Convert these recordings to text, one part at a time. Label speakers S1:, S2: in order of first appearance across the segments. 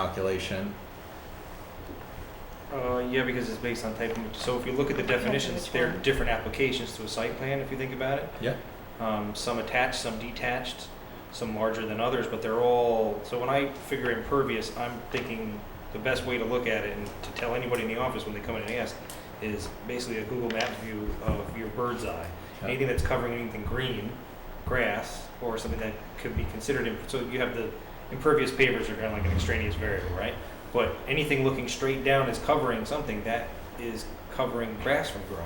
S1: calculation.
S2: Uh, yeah, because it's based on type, of- so if you look at the definitions,
S3: which
S2: they're
S3: one?
S2: different applications to a site plan, if you think about it.
S1: Yeah.
S2: Um, some attached, some detached, some larger than others, but they're all, so when I figure impervious, I'm thinking the best way to look at it and to tell anybody in the office when they come in and ask is basically a Google Maps view of your bird's eye. Anything that's covering anything green, grass, or something that could be considered, imp- so you have the impervious pavers are kind of like an extraneous variable, right? But anything looking straight down is covering something that is covering grass from growing.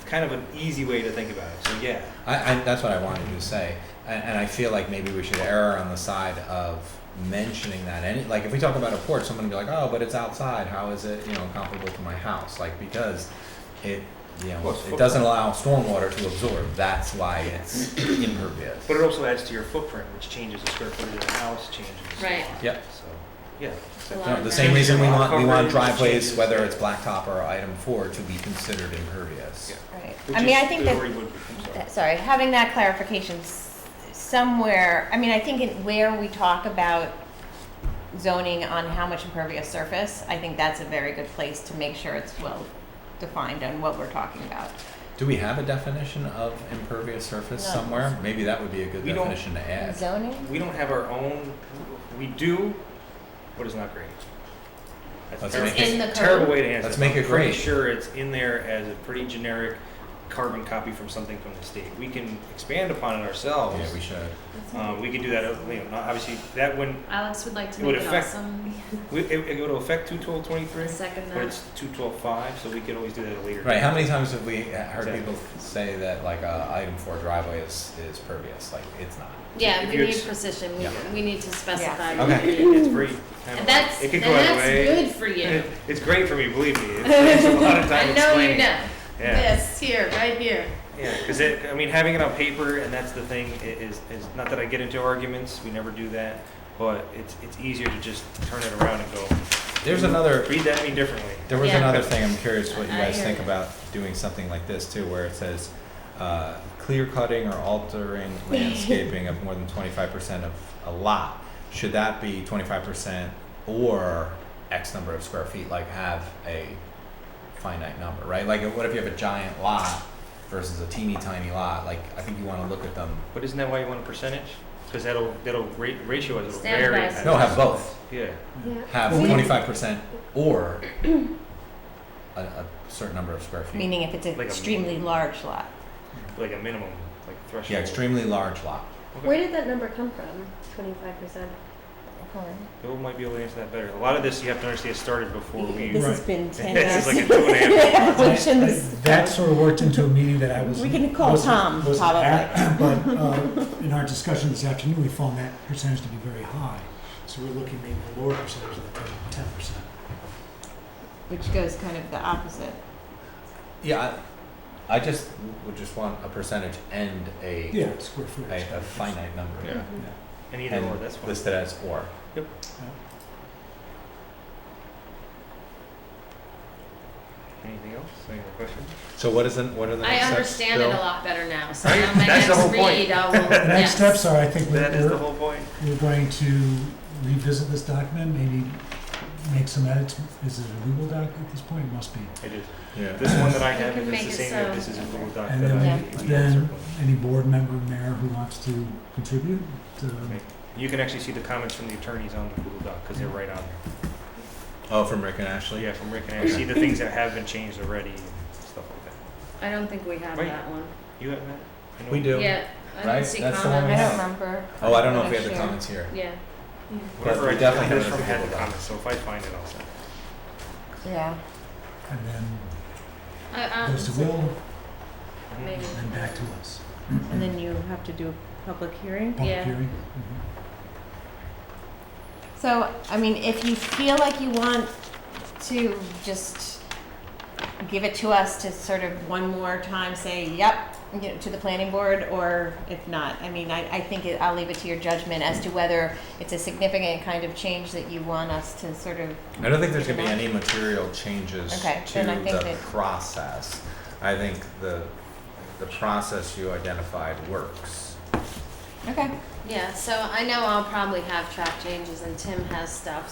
S2: It's kind of an easy way to think about it, so yeah.
S1: I, I, that's what I wanted to say, and, and I feel like maybe we should err on the side of mentioning that. Any, like if we talk about a porch, someone would be like, "Oh, but it's outside. How is it, you know, comparable to my house?" Like because it, you know,
S2: Well, it's
S1: it doesn't allow stormwater to absorb. That's why it's impervious.
S2: But it also adds to your footprint, which changes the square footage of the house, changes.
S3: Right.
S1: Yep.
S2: So, yeah.
S1: No,
S3: Lot
S1: the
S3: of
S1: same
S3: that.
S1: reason we want we want
S2: Coverage
S1: driveways,
S2: changes.
S1: whether it's blacktop or item four, to be considered impervious.
S2: Yeah.
S3: Right.
S2: Which
S3: I mean,
S2: is-
S3: I think
S2: the
S3: that,
S2: Lori Wood- I'm sorry.
S3: that- sorry, having that clarification s- somewhere, I mean, I think in where we talk about zoning on how much impervious surface, I think that's a very good place to make sure it's well defined on what we're talking about.
S1: Do we have a definition of impervious surface
S3: No.
S1: somewhere? Maybe that would be a good
S2: We don't-
S1: definition to add.
S3: Zoning?
S2: We don't have our own, we do, but it's not great. That's a
S1: Let's
S2: terrible-
S1: make it-
S3: In the code?
S2: Terrible way to answer.
S1: Let's
S2: it.
S1: make it
S2: I'm pretty
S1: great.
S2: Sure, it's in there as a pretty generic carbon copy from something from the state. We can expand upon it ourselves.
S1: Yeah, we should.
S2: Uh, we could do that, uh, you know, not- obviously, that one,
S4: Alex would like to
S2: It would
S4: make it
S2: affect-
S4: awesome.
S2: we- it, it would affect two twelve twenty-three,
S4: I second
S2: but
S4: that.
S2: it's two twelve five, so we could always do that at a later.
S1: Right.
S2: date.
S1: How many times have we uh, heard
S2: Exactly.
S1: people say that like uh, item four driveway is is pervious? Like it's not.
S4: Yeah,
S2: if
S4: we
S2: you
S4: need
S2: ex-
S4: precision.
S1: Yeah.
S4: We, we need to specify.
S1: Yeah. Okay.
S4: what we need.
S2: It's very, kind of-
S4: And That's,
S2: it
S4: and
S2: could go either
S4: that's
S2: way.
S4: good for you.
S2: It- It's great for me, believe me. It takes a lot of time
S4: I know you
S2: explaining.
S4: know.
S2: Yeah.
S4: This, here, right here.
S2: Yeah, because it, I mean, having it on paper, and that's the thing, i- is, is not that I get into arguments, we never do that, but it's, it's easier to just turn it around and go,
S1: There's another.
S2: read that any differently.
S1: There was
S4: Yeah.
S1: another thing. I'm curious what you
S4: I
S1: guys
S4: hear
S1: think
S4: you.
S1: about doing something like this too, where it says uh, clear cutting or altering landscaping of more than 25% of a lot. Should that be 25% or X number of square feet? Like have a finite number, right? Like what if you have a giant lot versus a teeny tiny lot? Like I think you want to look at them.
S2: But isn't that why you want a percentage? Because that'll, that'll ra- ratio is, it'll
S4: Stand
S2: vary.
S4: by
S2: at-
S1: No, have both.
S2: Yeah,
S1: have
S3: Well, we-
S1: twenty-five percent or a, a certain number of square feet.
S3: Meaning if it's an
S2: Like a-
S3: extremely large lot.
S2: like a minimum, like threshold.
S1: Yeah, extremely large lot.
S2: Okay.
S5: Where did that number come from? Twenty-five percent.
S2: Bill might be able to answer that better. A lot of this, you have to understand, started before we.
S3: This has been ten
S2: This is like a
S3: years.
S2: two and a half.
S3: Yeah, we shouldn't-
S6: That sort of worked into a meeting that I was.
S3: We can call
S6: wasn't-
S3: Tom,
S6: wasn't at, But uh, in our discussion this afternoon, we found that percentage to be very high. So we're looking maybe at a lower percentage than ten percent.
S3: Which goes kind of the opposite.
S1: Yeah, I, I just would just want a percentage and a
S6: Yeah, square
S1: a,
S6: footage.
S1: a finite number.
S2: Yeah. And either
S1: And
S2: or, that's fine.
S1: listed as or.
S2: Anything else? Any other questions?
S1: So what is the what are the
S4: I
S1: next
S4: understand it
S1: steps,
S4: a
S1: Bill?
S4: lot better now, so
S2: Right?
S4: on my
S2: That's
S4: next
S2: the whole point.
S4: read, I will, E yes.
S6: The next steps are, I think,
S2: That is the
S6: we're,
S2: whole point.
S6: we're going to revisit this document, maybe make some edits. Is it a Google doc at this point? It must be.
S2: It is.
S1: Yeah.
S2: This one that I
S4: You
S2: have,
S4: can
S2: if it's the
S4: make it
S2: same, that
S4: so.
S2: this is a Google Doc
S6: And
S2: that I.
S6: then,
S2: we had
S6: then
S2: circled.
S6: any board member, mayor who wants to contribute uh, to
S2: Okay. You can actually see the comments from the attorneys on the Google Doc, because they're right on there.
S1: Oh, from Rick and
S2: So
S1: Ashley.
S2: yeah, from Rick and I, see the things that have been changed already, and stuff like that.
S4: I don't think we have
S2: Wait.
S4: that one.
S2: You have that? I know-
S1: We do.
S4: Yeah, I
S1: Right?
S4: don't see
S1: That's the one we
S3: I
S4: comments.
S3: don't remember.
S1: Oh, I don't know if we
S3: I'm
S1: have the
S3: sure.
S1: comments here.
S4: Yeah.
S2: Whatever
S1: But
S2: I
S1: we definitely
S2: just got
S1: have
S2: this
S1: it as
S2: from
S1: a
S2: had the
S1: Google Doc.
S2: comments, so if I find it, I'll send it.
S3: Yeah.
S6: the, and then
S4: I- I-
S6: goes to Will,
S4: Maybe.
S6: and then back to us.
S3: And then you have to do a public hearing.
S6: Public
S4: Yeah.
S6: hearing. Mm-hmm.
S3: So, I mean, if you feel like you want to just give it to us to sort of one more time say, yep, you know, to the planning board, or if not, I mean, I, I think it, I'll leave it to your judgment as to whether it's a significant kind of change that you want us to sort of,
S1: I don't think there's gonna be any material changes
S3: Okay,
S1: to
S3: then I think
S1: the
S3: that-
S1: process. I think the the process you identified works.
S3: okay.
S4: Yeah, so I know I'll probably have track changes and Tim has stuff,